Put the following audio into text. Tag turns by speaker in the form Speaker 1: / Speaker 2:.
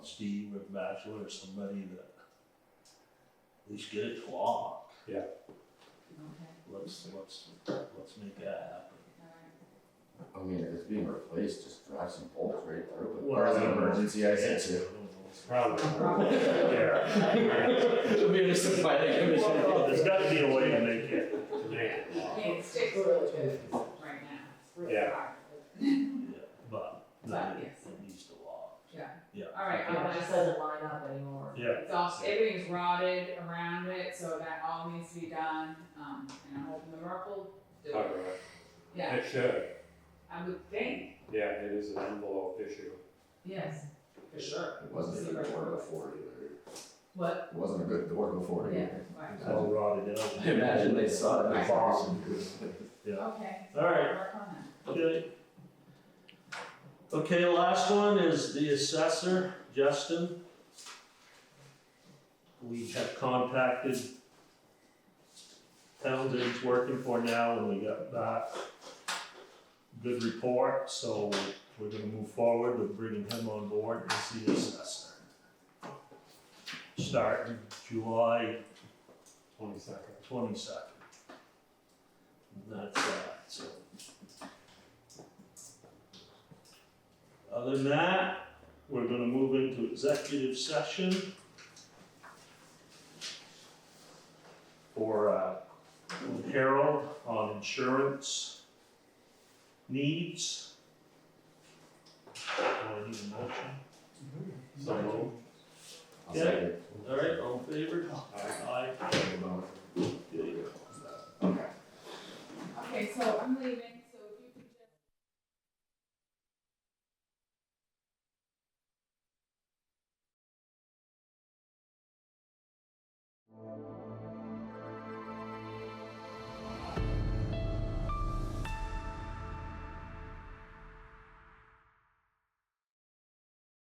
Speaker 1: Steve or Bachelor or somebody that at least get it to walk.
Speaker 2: Okay,
Speaker 1: Let's, let's, let's make that
Speaker 2: all right.
Speaker 3: I mean, if it's being replaced, just drive some bolts right through
Speaker 1: happen.
Speaker 3: it. Or as an emergency, I
Speaker 1: Yeah,
Speaker 3: said to.
Speaker 1: Probably.
Speaker 4: Yeah.
Speaker 3: It'll be understood by the
Speaker 1: Well, There's gotta be a way to make it,
Speaker 2: Yeah, it sticks really good right now. It's really
Speaker 4: Yeah.
Speaker 2: hard.
Speaker 1: yeah, but then it it needs to walk.
Speaker 2: Yeah,
Speaker 1: Yeah.
Speaker 2: all right,
Speaker 5: Yeah,
Speaker 2: I'll
Speaker 5: it just
Speaker 2: just,
Speaker 5: doesn't line up anymore.
Speaker 1: Yeah,
Speaker 2: it's all, everything's rotted around it, so that all needs to be done, um, and I'm hoping the rep will do it.
Speaker 4: Alright,
Speaker 2: Yeah,
Speaker 4: it should,
Speaker 2: I would think,
Speaker 4: yeah, it is an envelope issue.
Speaker 2: yes, for sure.
Speaker 3: It wasn't a good door before either.
Speaker 2: What?
Speaker 3: It wasn't a good door before
Speaker 2: Yeah,
Speaker 3: either.
Speaker 2: right,
Speaker 1: It's all rotted out.
Speaker 3: I imagine they saw it.
Speaker 2: Right. okay. so
Speaker 1: All right.
Speaker 2: Work on that.
Speaker 1: Okay. Okay, last one is the assessor, Justin. We have contacted towns that he's working for now, and we got back good report, so we're gonna move forward with bringing him on board as the assessor. Starting July
Speaker 4: Twenty second.
Speaker 1: twenty-second. That's that, so. Other than that, we're gonna move into executive session for, uh, Harold on insurance needs. Do I need a motion?
Speaker 4: So moved.
Speaker 3: I'll second.
Speaker 1: All right, all in favor?
Speaker 4: Aye.
Speaker 1: Aye.